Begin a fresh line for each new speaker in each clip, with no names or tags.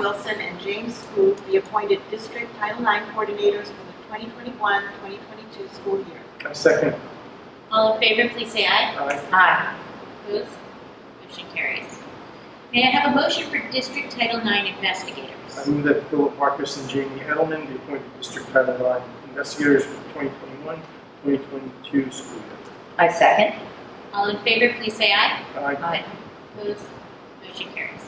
Wilson and James Scoop be appointed District Title IX Coordinators for the 2021-2022 school year.
I second.
All in favor, please say aye.
Aye.
Aye.
Opposed? Motion carries. May I have a motion for District Title IX
I
investigators?
move that Philip Marcus and Jamie Edelman be appointed District Title IX investigators for the 2021-2022 school year.
I second.
All in favor, please say aye.
Aye.
Aye.
Opposed? Motion carries.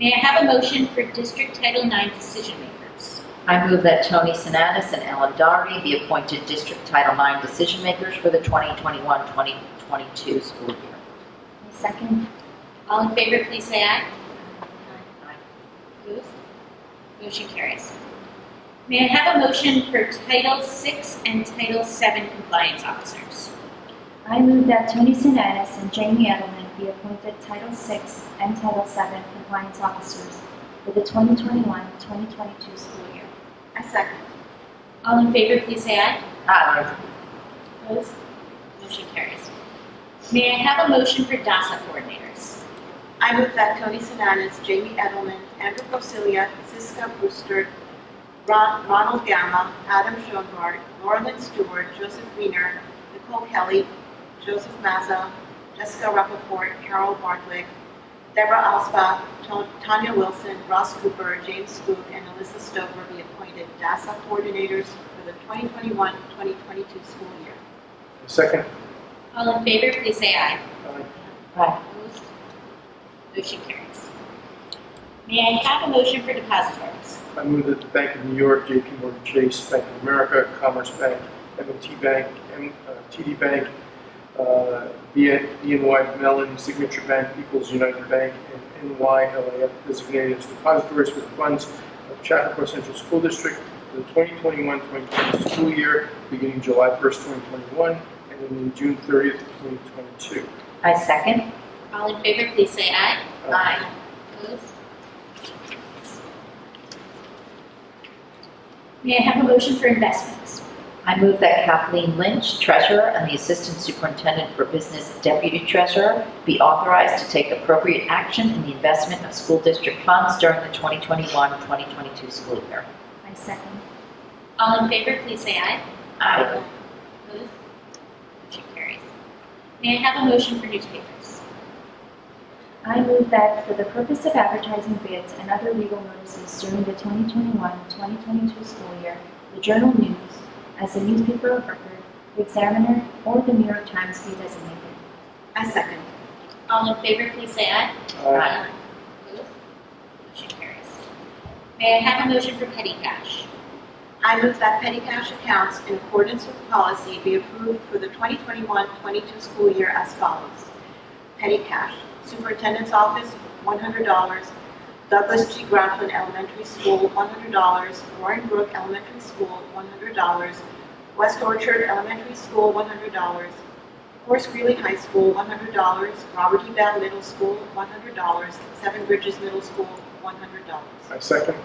May I have a motion for District Title IX decision makers?
I move that Tony Sinatus and Ellen Doherty be appointed District Title IX decision makers for the 2021-2022 school year.
Second. All in favor, please say aye. Opposed? Motion carries. May I have a motion for Title VI and Title VII compliance officers?
I move that Tony Sinatus and Jamie Edelman be appointed Title VI and Title VII compliance officers for the 2021-2022 school year.
I second.
All in favor, please say aye.
Aye.
Opposed? Motion carries. May I have a motion for DASSA coordinators?
I move that Tony Sinanis, Jamie Edelman, Andrew Porcellia, Siska Brewster, Ron- Ronald Gamma, Adam Schoenhardt, Lauren Stewart, Joseph Weiner, Nicole Kelly, Joseph Mazza, Jessica Rappaport, Carol Bartwick, Deborah Osbach, To- Tanya Wilson, Ross Cooper, James Spook, and Alyssa Stover be appointed DASSA coordinators for the 2021-2022 school year.
I second.
All in favor, please say aye.
Aye.
Aye.
Opposed? Motion carries. May I have a motion for depositories?
I move that the Bank of New York, JP Morgan Chase, Bank of America, Commerce Bank, M&T Bank, M- uh, TD Bank, uh, B- BNY Mellon, Signature Bank, People's United Bank, and NYLAF designated as depositories for the funds of Chappaqua Central School District for the 2021-2022 school year, beginning July 1st, 2021, and ending June 30th, 2022.
I second.
All in favor, please say aye.
Uh,
Opposed? May I have a motion for investments?
I move that Kathleen Lynch, treasurer, and the assistant superintendent for business deputy treasurer be authorized to take appropriate action in the investment of school district funds during the 2021-2022 school year.
I second.
All in favor, please say aye.
Aye.
Opposed? Motion carries. May I have a motion for newspapers?
I move that for the purpose of advertising bids and other legal notices during the 2021-2022 school year, the Journal News, as the newspaper of record, the Examiner, or the New York Times be designated.
I second.
All in favor, please say aye.
uh,
Opposed? Motion carries. May I have a motion for petty cash?
I move that petty cash accounts in accordance with policy be approved for the 2021-22 school year as follows. Petty cash, Superintendent's Office, $100, Douglas G. Grafflin Elementary School, $100, Warren Brook Elementary School, $100, West Orchard Elementary School, $100, Horace Greeley High School, $100, Robert E. Bell Middle School, $100, Seven Bridges Middle School, $100.
I second.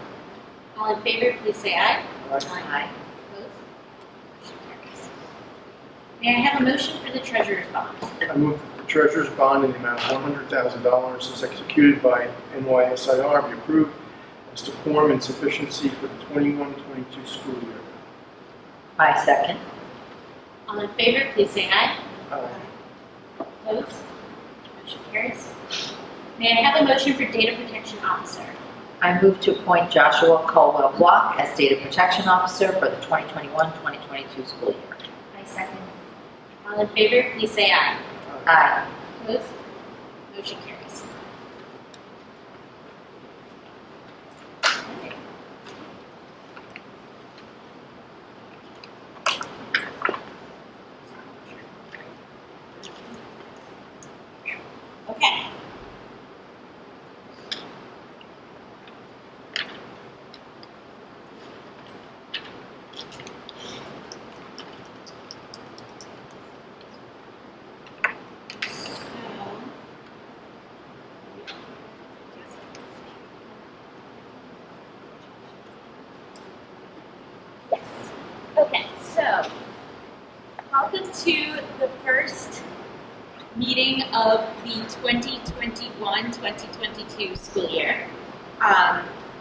All in favor, please say aye.
Aye.
Aye.
Opposed? Motion carries. May I have a motion for the treasurer's bond?
I move that the treasurer's bond in the amount of $100,000 is executed by NYSIR be approved as to form and sufficiency for the 21-22 school year.
I second.
All in favor, please say aye.
Aye.
Opposed? Motion carries. May I have a motion for data protection officer?
I move to appoint Joshua Colwell Block as Data Protection Officer for the 2021-2022 school year.
I second.
All in favor, please say aye.
Aye.
Opposed? Motion carries. Okay. So, Yes. Okay, so welcome to the first meeting of the 2021-2022 school year. Um,